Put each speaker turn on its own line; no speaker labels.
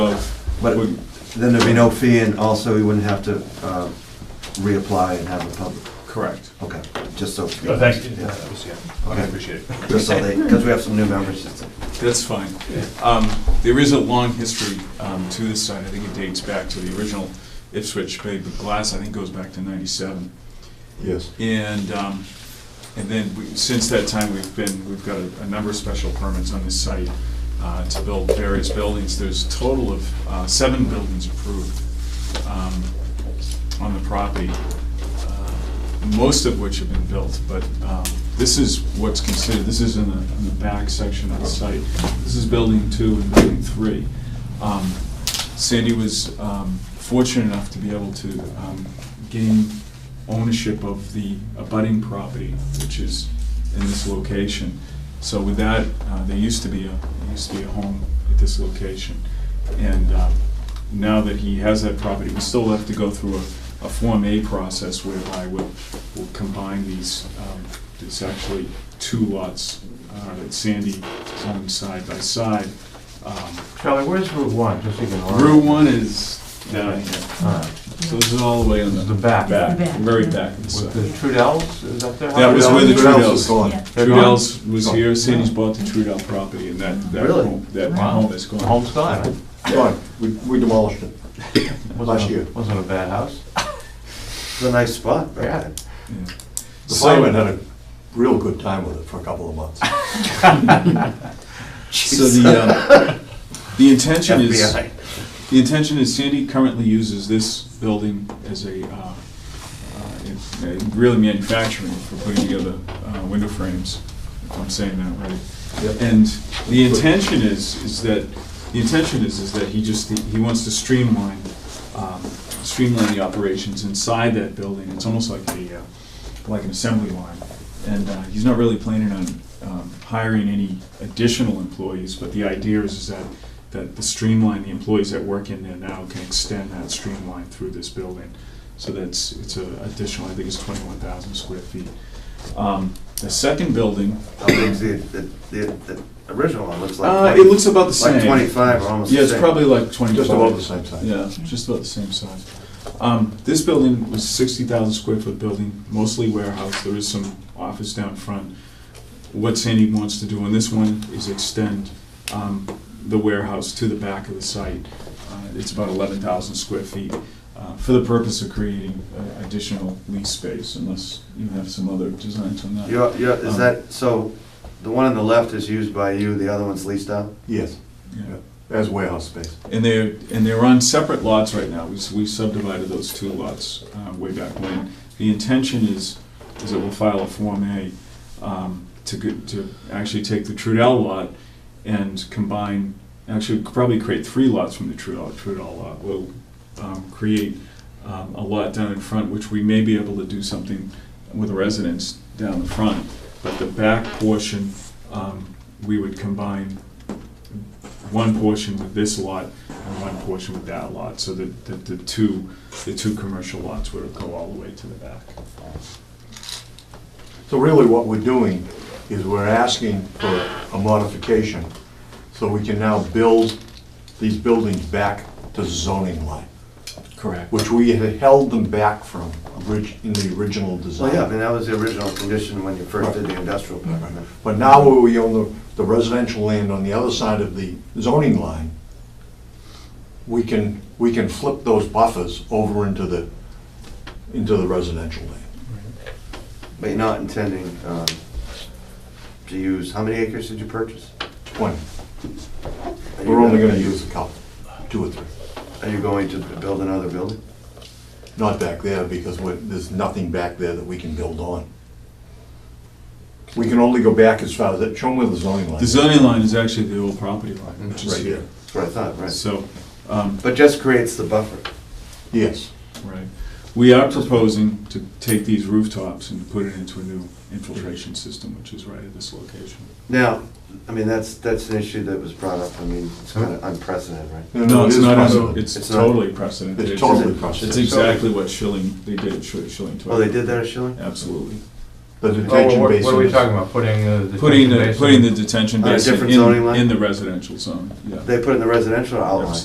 But
We-
then there'd be no fee, and also you wouldn't have to uh, reapply and have a public,
Correct.
okay, just so.
Oh, thank you.
Yeah.
That was- yeah.
Okay.
I appreciate it.
Just so they, because we have some new members. it's-
That's fine. Um, There is a long history um, to this site. I think it dates back to the original Ipswich Bay, but glass, I think, goes back to ninety-seven.
Yes.
And, um, and then, we- since that time, we've been, we've got a a number of special permits on this site uh, to build various buildings. There's a total of uh, seven buildings approved um, on the property, uh, most of which have been built, but um, this is what's considered, this is in the, in the back section of the site. This is building two and building three. Um, Sandy was um, fortunate enough to be able to um, gain ownership of the abutting property, which is in this location. So with that, uh, there used to be a, there used to be a home at this location. And um, now that he has that property, we still have to go through a, a Form A process whereby we'll, we'll combine these, um, there's actually two lots uh, that Sandy owns side by side. Um,
Charlie, where's Route 1, just so you can... orient
Route
me.
one is down here,
All right.
so this is all the way on
This is the
the
back.
back,
The back.
very back. of the
With
site.
the Trudells, is that their house?
That was where the
is
Trudells,
gone.
Yeah.
They're gone?
Trudells was
Oh,
here, Sandy's bought the Trudell property and that, that
Really?
home, that
Wow.
home is gone.
Home style. right?
Gone. We we demolished it.
Wasn't
Last
a-
year.
Wasn't a bad house.
It's a nice spot, right?
Yeah.
Yeah.
The
So-
firemen had a real good time with it for a couple of months.
So the, uh, the intention is,
FBI.
the intention is Sandy currently uses this building as a, uh, uh, it's a really manufacturing for putting together uh, window frames, if I'm saying that right.
Yep.
And the intention is, is that, the intention is, is that he just, he wants to streamline, um, streamline the operations inside that building. It's almost like a, uh, like an assembly line. And uh, he's not really planning on um, hiring any additional employees, but the idea is is that, that the streamline, the employees that work in there now can extend that streamline through this building. So that's, it's a additional, I think it's twenty-one thousand square feet. Um, The second building,
How big's the, the, the the original one, looks like.
uh,
20
it looks about the same.
Like twenty-five or almost the
Yeah,
same.
it's probably like twenty-five.
Just about the same size.
Yeah, just about the same size. Um, this building was sixty thousand square foot building, mostly warehouse, there is some office down front. What Sandy wants to do on this one is extend, um, the warehouse to the back of the site. Uh, It's about eleven thousand square feet, uh, for the purpose of creating uh, additional lease space, unless you have some other designs on that.
You're, you're, is
Um,
that, so, the one on the left is used by you, the other one's leased out?
Yes,
Yeah.
as warehouse space.
And they're, and they're on separate lots right now. We s- we subdivided those two lots uh, way back when. The intention is, is that we'll file a Form A um, to, go- to actually take the Trudell lot and combine, actually probably create three lots from the Trudell, Trudell lot. We'll um, create um, a lot down in front, which we may be able to do something with a residence down the front. But the back portion, um, we would combine one portion with this lot and one portion with that lot, so that, that the two, the two commercial lots would go all the way to the back.
So really what we're doing is we're asking for a modification so we can now build these buildings back to zoning line,
Correct.
which we had held them back from orig- in the original
Well, Oh, yeah, I
design.
mean, that was the original condition when you first did the industrial permit.
But now where we own the- the residential land on the other side of the zoning line, we can, we can flip those buffers over into the, into the residential land.
But you're not intending, um, to use, how many acres did you purchase?
Twenty.
Are you
We're only gonna use a couple, two or three.
Are you going to build another building?
Not back there, because we're- there's nothing back there that we can build on. We can only go back as far as that, show them where the zoning line
The
is.
zoning line is actually the old property line, which is
Right
here.
here.
That's what I thought, right?
So, um,
But just creates the buffer.
Yes,
right, we are proposing to take these rooftops and put it into a new infiltration system, which is right at this location.
Now, I mean, that's, that's an issue that was brought up, I mean, it's kind of unprecedented, right?
No,
No,
it
it's
is
not,
precedent.
a- it's
It's not-
totally precedent.
it's totally
It's
Oh,
precedent.
exactly what Schilling, they did at Schil- Schilling.
Oh, they did that at Schilling?
Absolutely.
The
Oh, well,
detention
what-
basin.
What are we
is-
talking about, putting the... detention
Putting the,
basin-
putting the detention
On a
basin
different zoning
in,
line?
in the residential zone, yeah.
They put in the residential outline.